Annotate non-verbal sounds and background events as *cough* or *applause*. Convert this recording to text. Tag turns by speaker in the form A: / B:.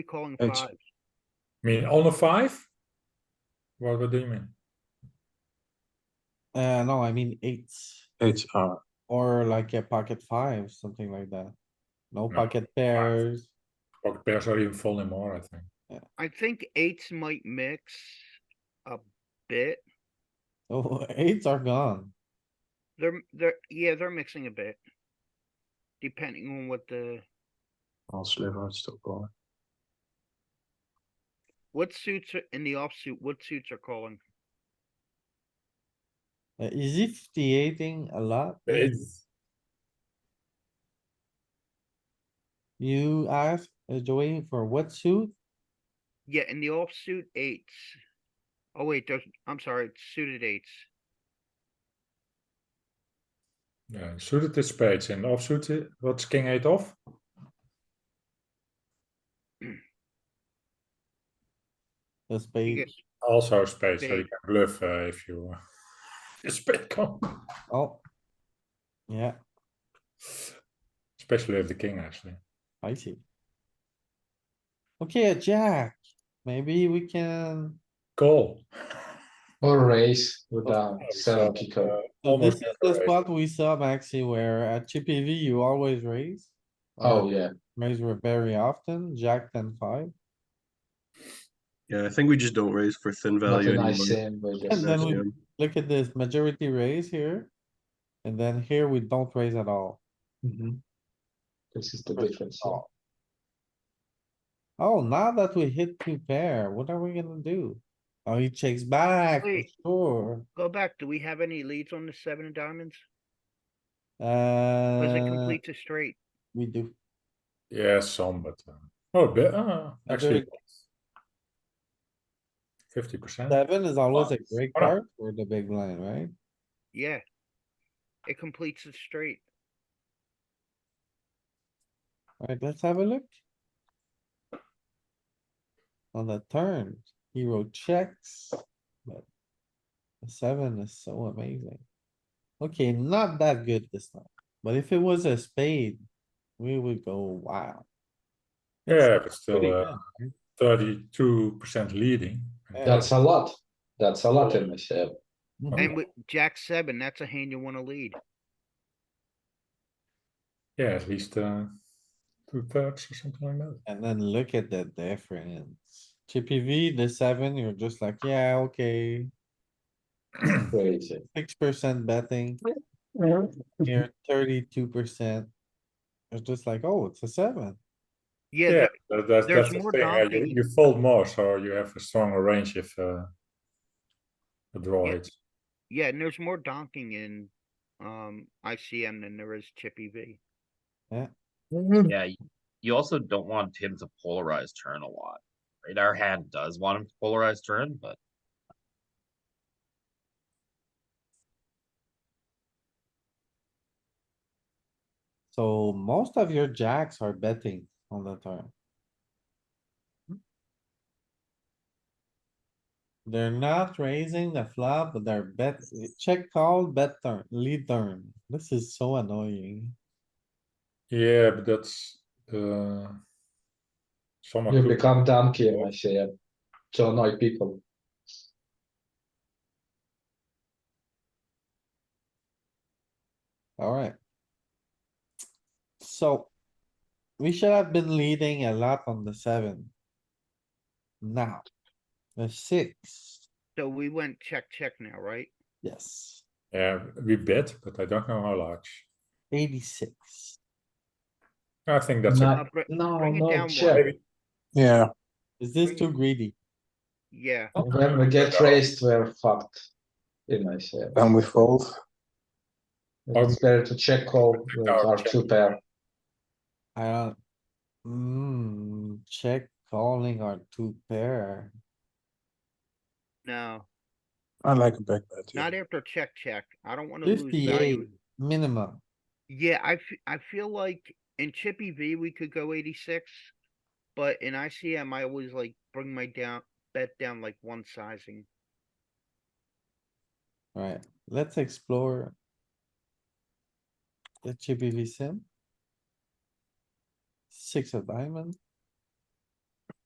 A: calling
B: It's-
A: five.
C: I mean, on a five? What, what do you mean?
D: Uh, no, I mean eights
B: Eights are,
D: or like a pocket five, something like that. No
C: No,
D: pocket pairs. *laughs*
C: Pocket pairs are even folding more, I think.
A: I think eights might mix a bit.
D: Oh, eights are gone.
A: They're, they're, yeah, they're mixing a bit. Depending on what the,
B: all sliver, it's still calling.
A: what suits are in the offsuit, what suits are calling.
D: Uh, Is he fifty eighting a lot?
C: It's,
D: You asked uh, Joey for what suit?
A: Yeah, in the offsuit eights. Oh wait, there's, I'm sorry, it's suited eights.
C: yeah, suited is spades and offsuit, i- what's king eight off?
D: The spade.
A: Yes,
C: Also spades, so you
A: Spade.
C: can bluff, uh, if you, uh, *laughs* a spade comes,
D: Oh. Yeah,
C: especially if the king actually.
D: I see. Okay, a jack. Maybe we can.
C: Call. Oh,
E: Or raise with a seven kicker.
C: Uh,
D: So This
C: almost
D: is
C: never
D: the
C: raise.
D: spot we saw Maxi where at chippy V you always raise.
E: Oh,
D: or
E: yeah.
D: Raise very often, jack ten five.
F: Yeah, I think we just don't raise for thin
E: Not
F: value
E: a nice
F: anymore.
E: sim, but
D: And
E: just.
D: then we
F: yeah.
D: look at this majority raise here. And then here we don't raise at all.
F: Mm-hmm.
E: Mhm. This is the
D: Raise
E: difference.
D: at all. Oh, now that we hit two pair, what are we gonna do? Oh, he checks back, for
A: Wait.
D: sure.
A: Go back, do we have any leads on the seven of diamonds? Does it
D: Uh,
A: complete the straight?
D: we do.
C: Yeah, some, but, uh, oh, but, uh, actually. Fifty percent.
D: Seven is always a
C: Nice.
D: great
C: Hold on.
D: card for the big blind, right?
A: Yeah. It completes the straight.
D: Alright, let's have a look. On the turn, hero checks, but the seven is so amazing. Okay, not that good this time, but if it was a spade, we would go wow.
C: Yeah, but still,
D: Pretty
C: uh,
D: good.
C: thirty-two percent leading.
D: Yeah.
E: That's a lot. That's a lot in my sim.
D: Mhm.
A: And with jack seven, that's a hand you wanna lead.
C: Yeah, at least, uh, two thirds or something like that.
D: And then look at the difference. Chippy V, the seven, you're just like, yeah, okay,
E: Crazy.
D: six percent betting. Here, thirty-two percent. It's just like, oh, it's a seven.
A: Yeah,
C: Yeah,
A: th-
C: that, that's,
A: there's
C: that's the
A: more
C: thing, uh, you,
A: dancing.
C: you fold more, so you have a stronger range if, uh, the draw
A: Yeah.
C: hits.
A: yeah, and there's more donking in, um, ICM than there is chippy V.
G: Yeah, y- you also don't want him to polarize turn a lot, right? Our hand does want him to polarize turn, but
D: So most of your jacks are betting on the turn. They're not raising the flop, but they're bet, check call, bet turn, lead turn. This is so annoying.
C: Yeah, but that's, uh. Someone
E: You
C: could-
E: become donkey in my sim. To annoy people.
D: Alright. So. We should have been leading a lot on the seven. Now. The six,
A: So we went check, check now, right?
D: yes,
C: Yeah, we bet, but I don't know how large.
D: eighty-six.
C: I think that's, a-
A: Uh,
E: Not,
A: br-
E: no,
A: bring it down
E: no,
A: one.
E: check.
B: Yeah,
D: Is this too greedy?
A: Yeah,
E: When we get raised, we're fucked. In my sim.
F: Um,
B: and we fold.
E: It's better to check
F: um,
E: call with
C: Our
E: our
C: check.
E: two pair.
D: I don't. Mm, check calling our two pair.
A: no,
B: I like a back bet. yeah.
A: not after check, check. I don't wanna lose
D: Fifty-eight
A: value.
D: minimum.
A: Yeah, I, f- I feel like in chippy V, we could go eighty-six. But in ICM, I always like bring my down, bet down like one sizing.
D: Alright, let's explore. The chippy V sim. Six of diamond.